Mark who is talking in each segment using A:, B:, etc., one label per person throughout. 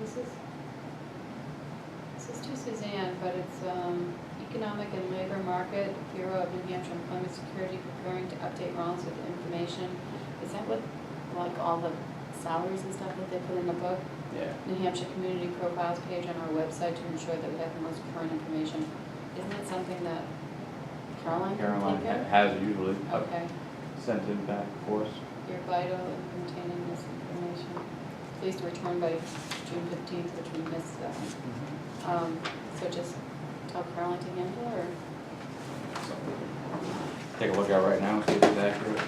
A: This is, this is to Suzanne, but it's um, Economic and Labor Market Bureau of New Hampshire Employment Security preparing to update Rollins with information. Is that what, like, all the salaries and stuff that they put in the book?
B: Yeah,
A: New Hampshire Community Profiles page on our website to ensure that we have the most current information. Isn't that something that Caroline can
B: Caroline Oh.
A: take
B: ha-
A: it?
B: has usually uh,
A: Okay,
B: sent it back for us.
A: you're vital in containing this information. Please return by June fifteenth, which we missed that. one. Um, so just tell Caroline to handle or?
B: Take a look at it right now, see if it's accurate.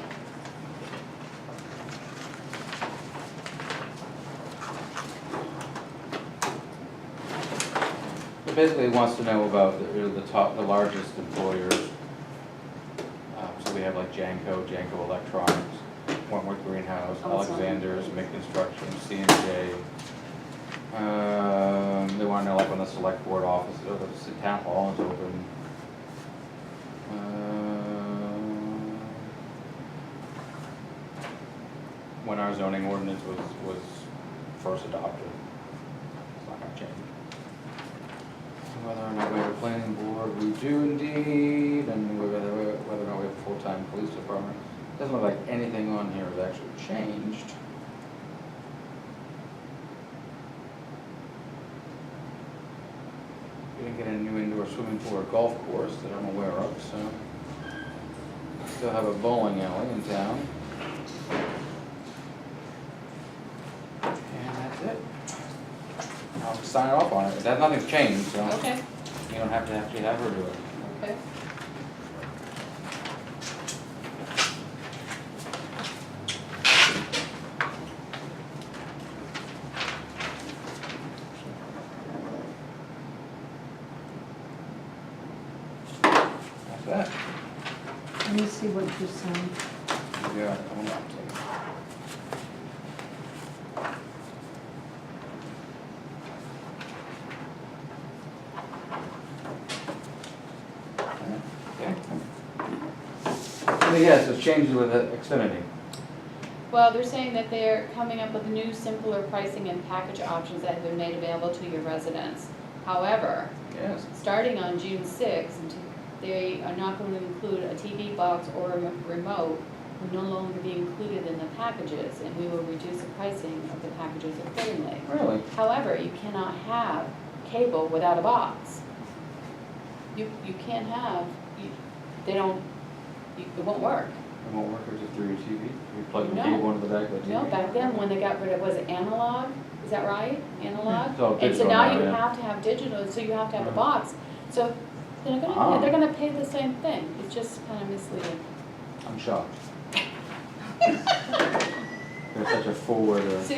B: It basically wants to know about the, really the top, the largest employers. Uh, so we have like Janko, Janko Electronics, Wentworth Greenhouse,
A: Oh, it's on.
B: Alexander's, Mick Construction, CNJ. Um, they wanna know like when the select board office, or the s- town hall is open. Uh, Um, When our zoning ordinance was, was first adopted. It's not gonna change. Whether or not we have a planning board, we do indeed, and whether, whether or not we have a full-time police department. Doesn't look like anything on here has actually changed. We didn't get a new indoor swimming pool or golf course that I'm aware of, so. Still have a bowling alley in town. And that's it. I'll sign off on it, that, nothing's changed, so.
A: Okay,
B: You don't have to actually have her do it.
A: okay.
B: That's that.
C: Let me see what you signed.
B: Yeah, I'm not taking. So yes, it's changes with uh, Xfinity.
A: Well, they're saying that they're coming up with new simpler pricing and package options that have been made available to your residents. However,
B: Yes.
A: starting on June sixth, they are not going to include a TV box or a remote will no longer be included in the packages, and we will reduce the pricing of the packages accordingly.
B: Really?
A: However, you cannot have cable without a box. You, you can't have, you, they don't, you, it won't work.
B: It won't work if it's through your TV? You plug the
A: No.
B: cable into the back of the TV?
A: No, back then, when they got rid of, was it analog? Is that right? Analog?
B: It's all digital
A: And so now
B: now,
A: you
B: yeah.
A: have to have digital, so you have to have a
B: Right.
A: box. So they're
B: Ah.
A: gonna, they're gonna pay the same thing. It's just kind of misleading.
B: I'm shocked. They're such a forwarder.
A: So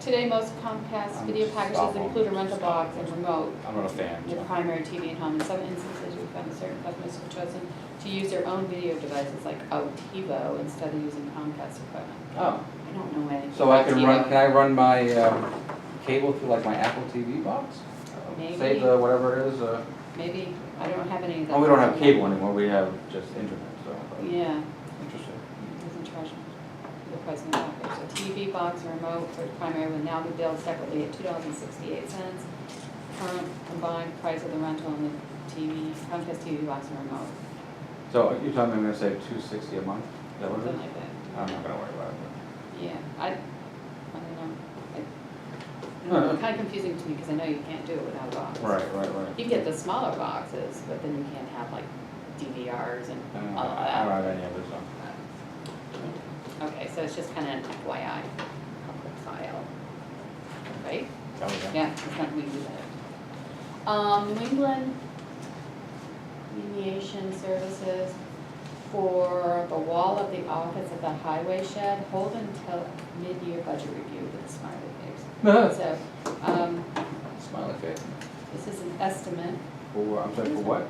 A: today, most Comcast
B: I'm
A: video packages
B: stopping.
A: include a rental box and remote.
B: I'm not a fan,
A: your
B: so.
A: primary TV at home. In some instances, we found that certain customers have chosen to use their own video devices like OTivo instead of using Comcast equipment.
B: Oh,
A: I don't know anything.
B: so I
A: about
B: can run,
A: TiVo.
B: can I run my, um, cable through like my Apple TV box? Say
A: Maybe,
B: the, whatever it is, uh,
A: maybe. I don't have any of that.
B: well, we don't have cable anymore, we have just internet, so. but-
A: Yeah,
B: Interesting.
A: it doesn't charge the price of the package. A TV box or remote for primary will now be billed separately at two dollars and sixty-eight cents. Current combined price of the rental and the TV, Comcast TV box and remote,
B: So uh, you're telling me I'm gonna save two sixty a month? Is that what it
A: something
B: is?
A: like that.
B: I'm not gonna worry about it.
A: Yeah, I, I don't know. I- I don't know, It's kind of confusing to me because I know you can't do it without a box.
B: Right, right, right.
A: You can get the smaller boxes, but then you can't have like DVRs
B: I don't
A: and
B: know,
A: all of
B: I
A: that.
B: don't have any of this, so.
A: Okay, so it's just kind of an FYI, public file, right?
B: Tell me that.
A: Yeah, it's not, we can do that. Um, New England mediation services for the wall of the office at the highway shed, hold until mid-year budget review with the smart reviews. So, um,
B: Smiley face.
A: this is an estimate,
B: For, I'm sorry, for what?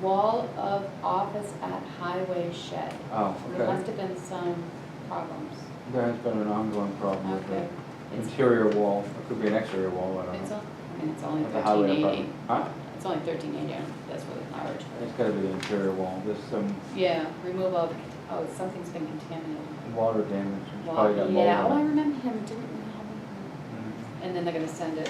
A: wall of office at highway shed.
B: Oh,
A: There
B: okay.
A: must have been some problems.
B: There has been an ongoing problem with
A: Okay.
B: the
A: It's,
B: interior wall, it could be an exterior wall, I don't know.
A: it's, on- I mean, it's only
B: At the highway
A: thirteen eighty,
B: department. Huh?
A: it's only thirteen eighty, that's really large.
B: It's gotta be the interior wall, there's some
A: Yeah, removal of, oh, something's been contaminated.
B: water damage, it's
A: Well,
B: probably got mold
A: Yeah, oh, I
B: on it.
A: remember him, didn't we have him?
B: Mhm.
A: And then they're gonna send it